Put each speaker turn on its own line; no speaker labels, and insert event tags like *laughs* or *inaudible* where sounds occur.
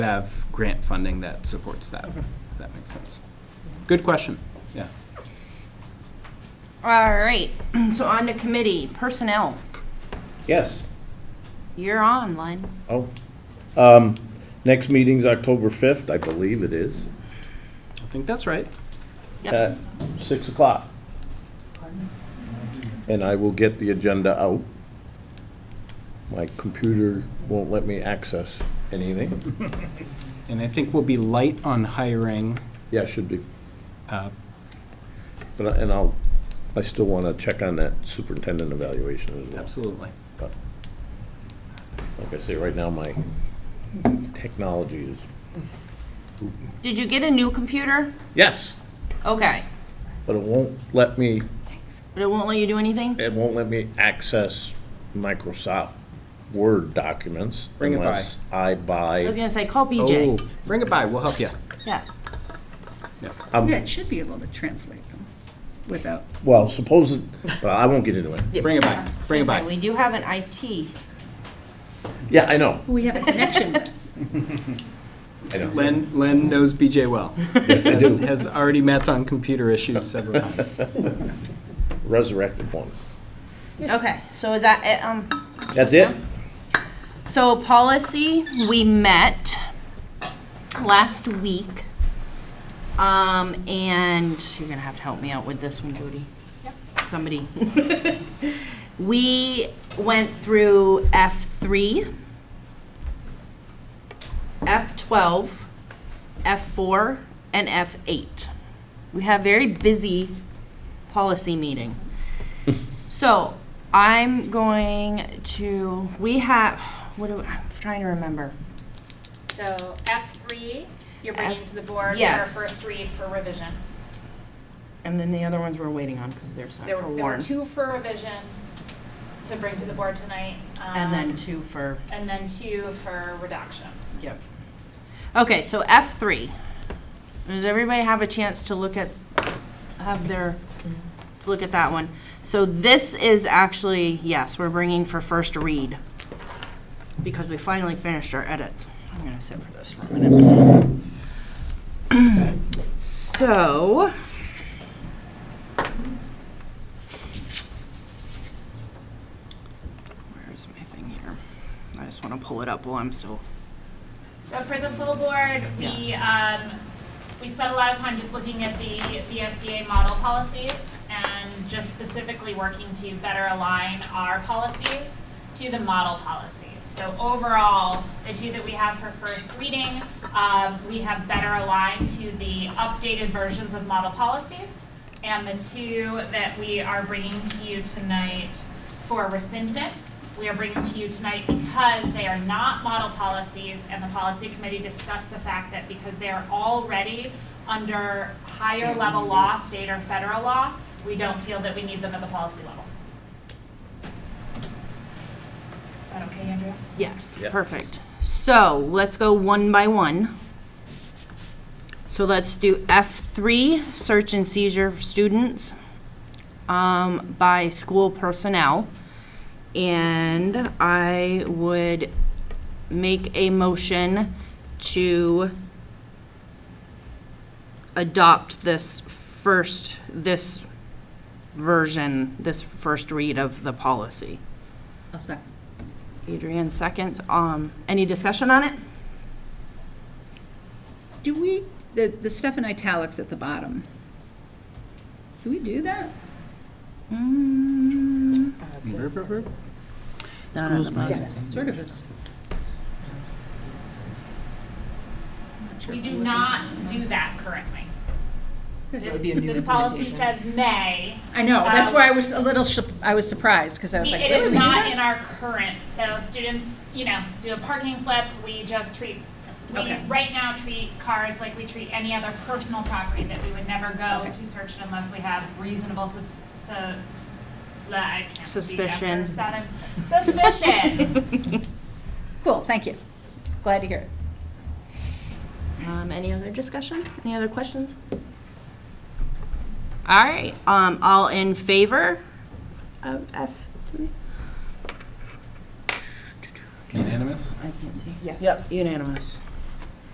have grant funding that supports that, if that makes sense. Good question, yeah.
All right, *clears throat* so on to committee, personnel.
Yes.
You're on, Len.
Oh. Um, next meeting's October 5th, I believe it is,
I think that's right.
at 6 o'clock. And I will get the agenda out. My computer won't let me access anything.
And I think we'll be light on hiring,
Yeah, it should be.
uh,
But, I- and I'll, I still want to check on that superintendent evaluation as well.
absolutely.
But Like I say, right now, my technology is,
Did you get a new computer?
yes,
Okay,
but it won't let me
but it won't let you do anything?
it won't let me access Microsoft Word documents
Bring it by.
unless I
I was
buy,
gonna say, call
Oh,
BJ.
bring it by, we'll help you.
Yeah,
Yeah, it should be able to translate them without,
well, suppose, well, I won't get into it.
Bring it by, bring it
Okay,
by.
we do have an IT.
Yeah, I know,
we have a connection with.
I know.
Len, Len knows BJ well. Yes, I do. Has already met on computer issues several times.
Resurrected one.
Okay, so is that, it? um,
That's it?
so policy, we met last week. Um, and you're gonna have to help me out with this one, Judy. Somebody. *laughs* We went through F three, F twelve, F four, and F eight. We have very busy policy meeting. So I'm going to, we have, what do, I'm trying to remember.
So F three, you're bringing
F-
to the board for a
yes.
first read for revision.
And then the other ones we're waiting on because they're signed
There
for
were, there were
Warren.
two for revision to bring to the board tonight.
And then
um,
two for,
And then two for redaction.
yep. Okay, so F three. Does everybody have a chance to look at, have their, look at that one? So this is actually, yes, we're bringing for first read because we finally finished our edits. I'm gonna sit for this for a minute. *clears throat* So. Where's my thing here? I just wanna pull it up while I'm still.
So for the full board, we, um, we spent a lot of time just looking at the, the SBA model policies and just specifically working to better align our policies to the model policies. So overall, the two that we have for first reading, um, we have better aligned to the updated versions of model policies. And the two that we are bringing to you tonight for rescindment, we are bringing to you tonight because they are not model policies, and the policy committee discussed the fact that because they are already under higher level law, state or federal law, we don't feel that we need them at the policy level. Is that okay, Andrea?
Yes,
Yeah.
perfect. So let's go one by one. So let's do F3, search and seizure of students um, by school personnel. And I would make a motion to adopt this first, this version, this first read of the policy.
*laughs* I'll second.
Adrian seconds. Um, any discussion on it?
Do we, the, the stuff in italics at the bottom, do we do that? Mm.
Burp, burp, burp.
Not on the bottom. Sort of is.
We do not do that currently.
That
This, this policy says may.
I know, that's
Um,
why I was a little, sup- I was surprised, because I was like,
It
really,
is
we do
not in
that?
our current, so students, you know, do a parking slip, we just treat, s- we
Okay.
right now treat cars like we treat any other personal property that we would never go
Okay.
to search it unless we have reasonable subs, so, I can't speak after
Suspicion.
seven. Suspicion,
Cool, thank you. Glad to hear it.
Um, any other discussion? Any other questions? All right, um, all in favor of F three?
Unanimous?
I can't see. Yes. Yep, unanimous.